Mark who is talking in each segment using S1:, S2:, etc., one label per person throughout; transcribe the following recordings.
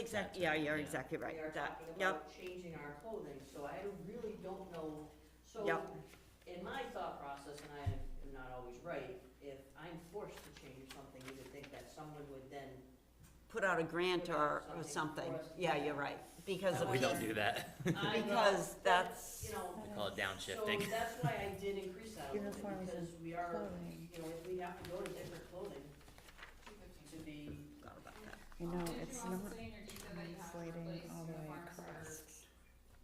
S1: exact, yeah, you're
S2: Yeah.
S1: exactly
S3: We are
S1: right, that,
S3: talking
S1: yep,
S3: about changing our clothing, so I really don't know, so
S1: Yep.
S3: in my thought process, and I am not always right, if I'm forced to change something, you would think that someone would then,
S1: put out a grant
S3: Put out
S1: or, or
S3: something
S1: something,
S3: for us to
S1: yeah,
S3: do.
S1: you're right, because of.
S2: We don't do that.
S3: I know,
S1: Because
S3: but,
S1: that's-
S3: You know,
S2: We call it
S3: so
S2: downshifting.
S3: that's why I did increase that a little bit,
S4: Uniforms
S3: because we are,
S4: clothing.
S3: you know, if we have to go to different clothing to be,
S1: Forgot about that.
S4: You know,
S5: Did
S4: it's
S5: you
S4: not
S5: also say in your detail that you have to
S4: translating
S5: replace
S4: all the way
S5: uniforms for,
S4: across.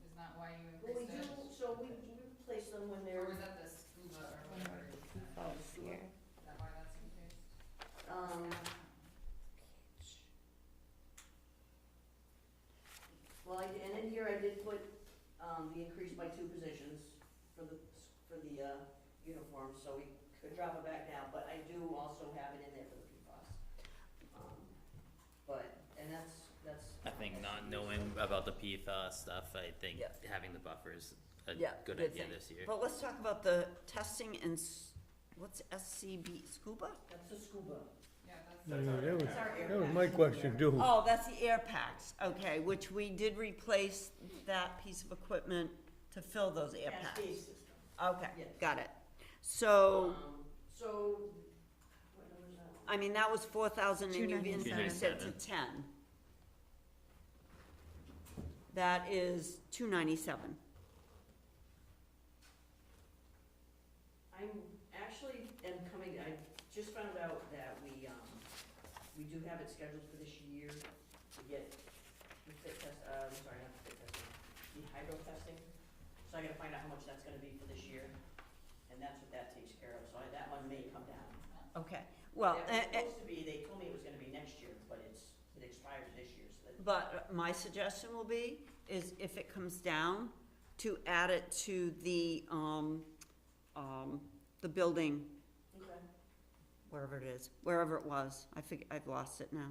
S5: is that why you
S3: well, we
S5: increased
S3: do,
S5: it?
S3: so we, we replace them when
S5: Or
S3: they're,
S5: was that the scuba or whatever, it is? is
S4: Falls here.
S5: that why that's increased?
S3: um, Well, I, and in here I did put, um, the increase by two positions for the, for the, uh, uniform, so we could drop it back now, but I do also have it in there for the PFAS. Um, But, and that's, that's.
S2: I think not knowing about the PFAS stuff, I think
S1: Yeah.
S2: having the buffer is a
S1: Yeah,
S2: good
S1: good
S2: idea
S1: thing.
S2: this year.
S1: But let's talk about the testing and, s- what's SCB, scuba?
S3: That's the scuba.
S5: Yeah, that's.
S6: No, no, that was,
S3: It's our air
S6: that was
S3: pack.
S6: my question too.
S1: Oh, that's the air packs, okay, which we did replace that piece of equipment to fill those air packs.
S3: Cascade system.
S1: Okay,
S3: Yes.
S1: got it. So,
S3: Um, So, what number is that?
S1: I mean, that was four thousand and you
S4: 297.
S1: increased it to ten. That is two ninety-seven.
S3: I'm actually am coming, I just found out that we, um, we do have it scheduled for this year to get the fit test, uh, I'm sorry, not the fit testing, the hydro testing. So I gotta find out how much that's gonna be for this year, and that's what that takes care of, so I, that one may come down.
S1: Okay, well, eh,
S3: That
S1: eh,
S3: was supposed to be, they told me it was gonna be next year, but it's, it expires this year, so that,
S1: but my suggestion will be, is if it comes down, to add it to the, um, um, the building,
S3: okay.
S1: wherever it is, wherever it was, I fig, I've lost it now.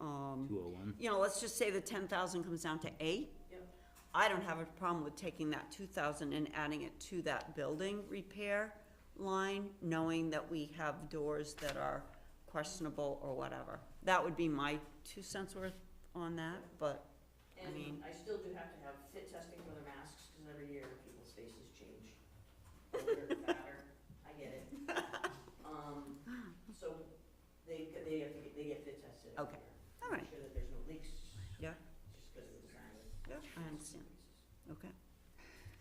S1: Um,
S2: Two oh one.
S1: you know, let's just say the ten thousand comes down to eight.
S3: Yep.
S1: I don't have a problem with taking that two thousand and adding it to that building repair line, knowing that we have doors that are questionable or whatever. That would be my two cents worth on that, but, I mean-
S3: And I still do have to have fit testing for the masks, cause every year people's faces change. Older, fatter, I get it. Um, so they, they have to get, they get fit tested every
S1: Okay.
S3: year.
S1: all
S3: Make
S1: right,
S3: Sure that there's no leaks.
S1: Yeah.
S3: Just cause of the design.
S1: yeah, I understand, okay,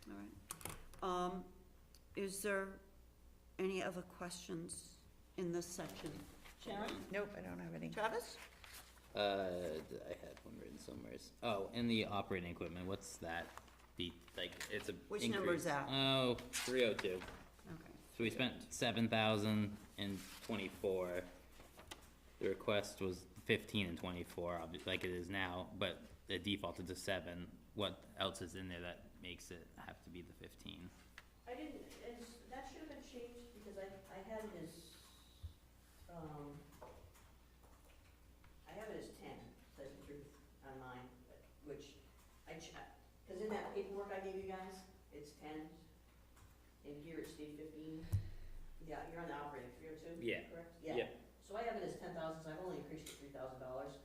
S1: all right. Um, is there any other questions in this section? Sharon?
S4: Nope, I don't have any.
S1: Travis?
S2: Uh, I had one written somewhere. Oh, and the operating equipment, what's that? The, like, it's a.
S1: Which number is
S2: increase.
S1: that?
S2: Oh, three oh two.
S1: Okay.
S2: So we spent seven thousand and twenty-four. The request was fifteen and twenty-four, obvi- like it is now, but it defaulted to seven. What else is in there that makes it have to be the fifteen?
S3: I didn't, it's, that should have been changed because I, I had it as, um, I have it as ten, that's the truth, on mine, but- which I ch- cause in that paperwork I gave you guys, it's ten. And here it's Steve fifteen. Yeah, you're on the operating, three oh two,
S2: Yeah.
S3: correct?
S2: Yeah.
S3: So I have it as ten thousand, so I've only increased it three thousand dollars.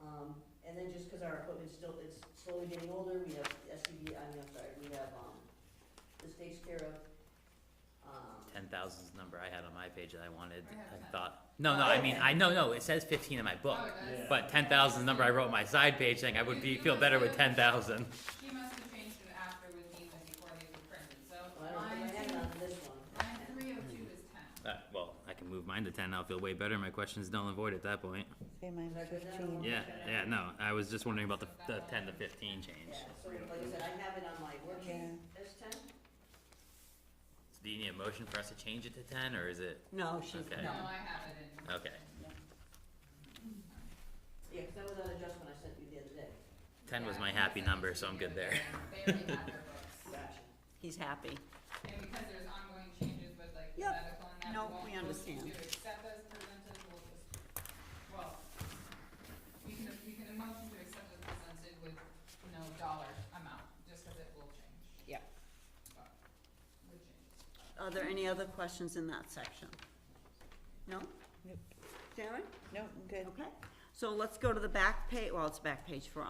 S3: Um, and then just cause our equipment's still, it's slowly getting older, we have SUV, I mean, I'm sorry, we have, um, this takes care of, um.
S2: Ten thousand is the number I had on my page that I wanted,
S5: I have
S2: I
S5: 10.
S2: thought, no, no, I mean, I, no, no, it says fifteen in my book.
S5: Oh, it does?
S2: But ten thousand is the number I wrote on my side page saying I would be, feel better with ten thousand.
S5: He must have changed it after with these and before these were printed, so
S3: Well, I
S5: line
S3: don't think I had
S5: two,
S3: it on this one.
S5: line three oh two is ten.
S2: Uh, well, I can move mine to ten, I'll feel way better, my question's null and void at that point.
S4: Say mine
S3: Like, is that
S4: fifteen.
S2: Yeah, yeah, no, I was just wondering about the, the ten to fifteen change.
S3: Yeah, so like I said, I have it on my worksheet as ten.
S2: Do you need a motion for us to change it to ten, or is it,
S1: No, she's,
S2: Okay.
S1: no.
S5: No, I have it in.
S2: okay,
S3: Yeah, 'cause that was an adjustment I sent you the other day.
S2: ten was
S5: Yeah,
S2: my
S5: I
S2: happy
S5: think
S2: number,
S5: it
S2: so I'm
S5: should
S2: good
S5: be
S2: there.
S5: okay. They already have their books.
S3: Gotcha.
S1: He's happy.
S5: And because there's ongoing changes with like the
S1: Yep.
S5: medical and that,
S1: No,
S5: we won't
S1: we
S5: vote
S1: understand.
S5: to accept as presented, we'll just, well, we can, we can motion to accept as presented with no dollar amount, just because it will change.
S1: Yep.
S5: But, Would change.
S1: Are there any other questions in that section? No?
S4: Nope.
S1: Sharon?
S4: Nope, I'm good.
S1: Okay, so let's go to the back page, well, it's back page for